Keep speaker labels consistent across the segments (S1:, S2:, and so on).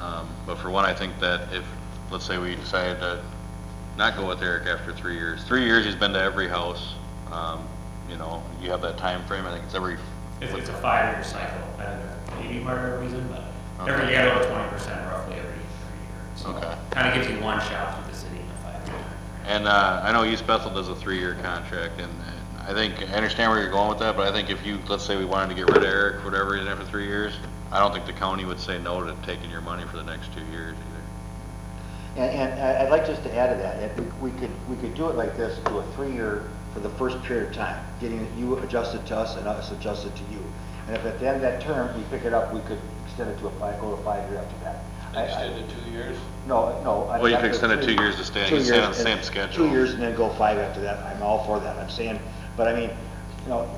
S1: Um, But for one, I think that if, let's say we decided to not go with Eric after three years, three years he's been to every house, um, you know, you have that time frame. I think it's every,
S2: It's, it's a five-year cycle, I don't know, maybe part of the reason, but every year, over twenty percent roughly every, every year.
S1: Okay.
S2: So kind of gives you one shot through the city in a five-year.
S1: and uh, I know East Bethel does a three-year contract, and and I think, I understand where you're going with that, but I think if you, let's say we wanted to get rid of Eric, for whatever, reason after three years, I don't think the county would say no to taking your money for the next two years either.
S3: And, and I- I'd like just to add to that, if we, we could, we could do it like this, do a three-year for the first period of time, getting you adjusted to us and us adjusted to you. And if at the end of that term, we pick it up, we could extend it to a five, go to five year after that. I- I-
S4: Extended two years?
S3: No, no. I'd
S1: Well, you
S3: like
S1: could
S3: the
S1: extend it
S3: three-
S1: two years to stay-
S3: two
S1: stay on
S3: years
S1: the same
S3: and-
S1: schedule.
S3: Two years and then go five after that, I'm all for that, I'm saying, but I mean, you know.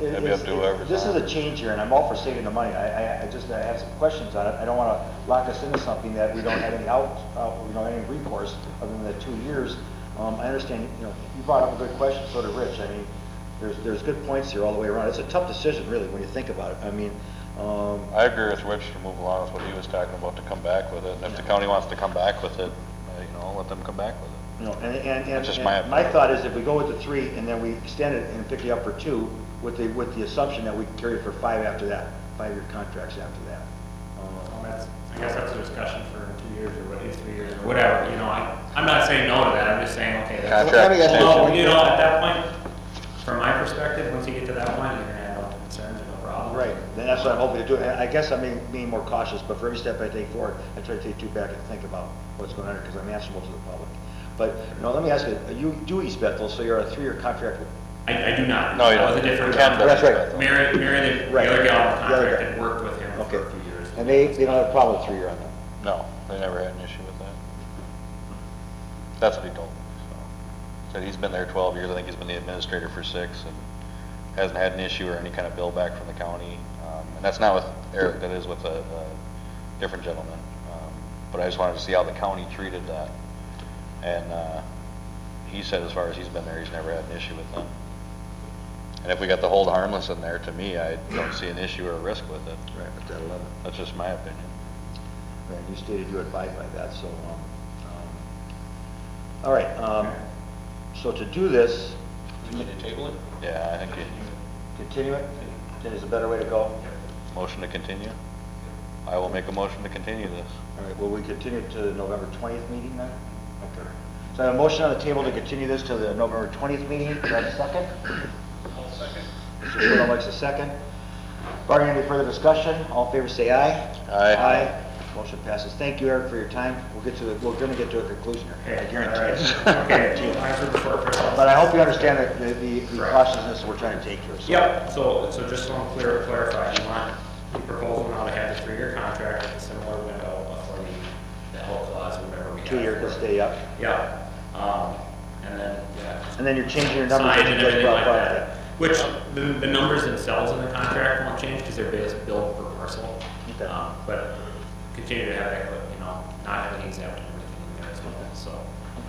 S3: it-
S1: That'd be
S3: it's-
S1: up to whoever's
S3: This is
S1: on.
S3: a change here, and I'm all for saving the money, I, I, I just, I have some questions on it, I don't wanna lock us into something that we don't have any out, uh, we don't have any recourse other than the two years. Um, I understand, you know, you brought up a good question, so did Rich, I mean, there's, there's good points here all the way around, it's a tough decision really, when you think about it, I mean, um,
S1: I agree with Rich to move along with what he was talking about, to come back with it, and if the
S3: Yeah.
S1: county wants to come back with it, uh, you know, let them come back with it.
S3: You know, and, and,
S1: That's
S3: and
S1: just my
S3: and my
S1: opinion.
S3: thought is if we go with the three and then we extend it and pick you up for two with the, with the assumption that we carry it for five after that, five-year contracts after that.
S2: Well,
S3: Um,
S2: that's, I guess that's a discussion for two years or what, in three years or whatever, you know, I, I'm not saying no to that, I'm just saying, okay, that's.
S1: Contract Let me ask you a
S2: Well,
S3: question.
S2: You know, at that point, from my perspective, once you get to that point, you're gonna have no concerns and no problems.
S3: Right, then that's what I'm hoping to do. And I guess I'm being, being more cautious, but for every step I take forward, I try to take two back and think about what's going on because I'm answerable to the public. But, you know, let me ask you, you do East Bethel, so you're a three-year contract with
S2: I, I do not.
S1: No, you
S2: That was a
S1: don't.
S2: different.
S1: You can,
S2: contract.
S3: That's right.
S2: Mary, Mary, the the
S3: Right.
S2: other gal on the
S3: The other
S2: contract
S3: guy.
S2: had worked with him
S3: Okay.
S2: for a few years.
S3: And they, they don't have a problem with three-year on them?
S1: No, they never had an issue with that. That's what he told me, so. Said he's been there twelve years, I think he's been the administrator for six, and hasn't had an issue or any kind of bill back from the county. Um, And that's not with Eric, that is with a, a different gentleman. Um, But I just wanted to see how the county treated that. And, uh, he said as far as he's been there, he's never had an issue with them. And if we got the hold harmless in there, to me, I don't see an issue or a risk with it.
S3: Right, with that eleven.
S1: That's just my opinion.
S3: And you stated you abide by that, so, um, um, all right, um, so to do this,
S4: Do we need to table it?
S1: Yeah, I think you,
S3: continue it, that is a better way to go.
S1: Motion to continue? I will make a motion to continue this.
S3: All right, will we continue it to the November twentieth meeting then? Okay. So I have a motion on the table to continue this to the November twentieth meeting, do I have a second? Mr. Bruno likes a second. Barring any further discussion, all in favor say aye.
S1: Aye.
S3: Aye, motion passes. Thank you, Eric, for your time. We'll get to the, we're gonna get to a conclusion here, I
S2: Okay,
S3: guarantee
S2: all
S3: it.
S2: right. Okay, two times before Christmas.
S3: But I hope you understand that the, the the
S2: Correct.
S3: cautiousness we're trying to take here. so-
S2: Yep, so, so just so I'm clear, clarify, you want the proposal now to have the three-year contract with a similar window for the, the whole clause, or whatever we have.
S3: Two-year could stay up.
S2: Yeah, um, and then, yeah.
S3: And then you're changing your numbers.
S2: Signage
S3: that you
S2: and
S3: just
S2: everything like
S3: brought up.
S2: that. Which, the, the numbers themselves in the contract won't change, because they're based billed per parcel.
S3: Okay.
S2: Um, But continue to have that, you know, not have an exact and everything in there as well, so.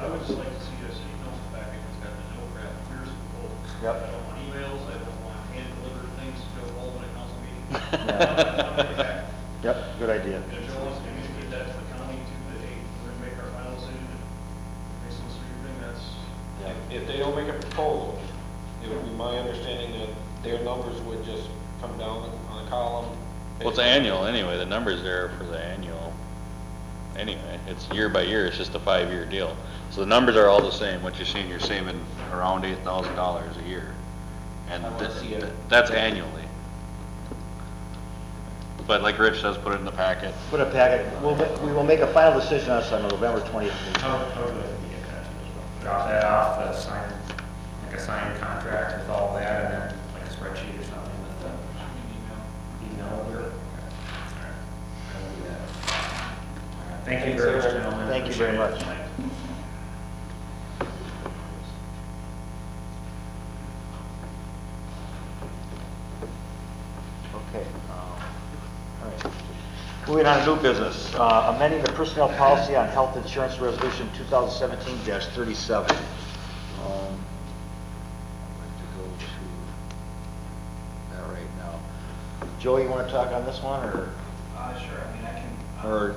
S5: I would just like to see us emails back, if it's got the no crap, here's the goal.
S3: Yep.
S5: I don't want emails, I don't want hand-delivered things to go all in a council meeting.
S3: Yeah. Yep, good idea.
S5: And if Joe wants to communicate that to the county too, that, hey, we're gonna make our final decision, based on this sort of thing, that's,
S4: If- If they don't make a proposal, it would be my understanding that their numbers would just come down on a column.
S1: Well, it's annual anyway, the number's there for the annual. Anyway, it's year by year, it's just a five-year deal. So the numbers are all the same, what you're seeing, you're saving around eight thousand dollars a year. And
S4: I wanna
S1: th-
S4: see it.
S1: th- that's annually. But like Rich says, put it in the packet.
S3: Put a packet, we'll, ma- we will make a final decision on this on the November 20th meeting.
S2: How, how would you like to get that? Drop that off, uh, sign, like a signed contract with all that, and then like a spreadsheet or something with the. Email. Email, or? Thank you very much, gentlemen.
S3: Thank you very much.
S2: Appreciate it.
S3: Okay. um, all right. Moving on to new business, uh, amending the personnel policy on health insurance resolution 2017-37. Um, I'd like to go to that right now. Joey, you want to talk on this one, or?
S6: Uh, sure, I mean, I can. uh,
S3: Or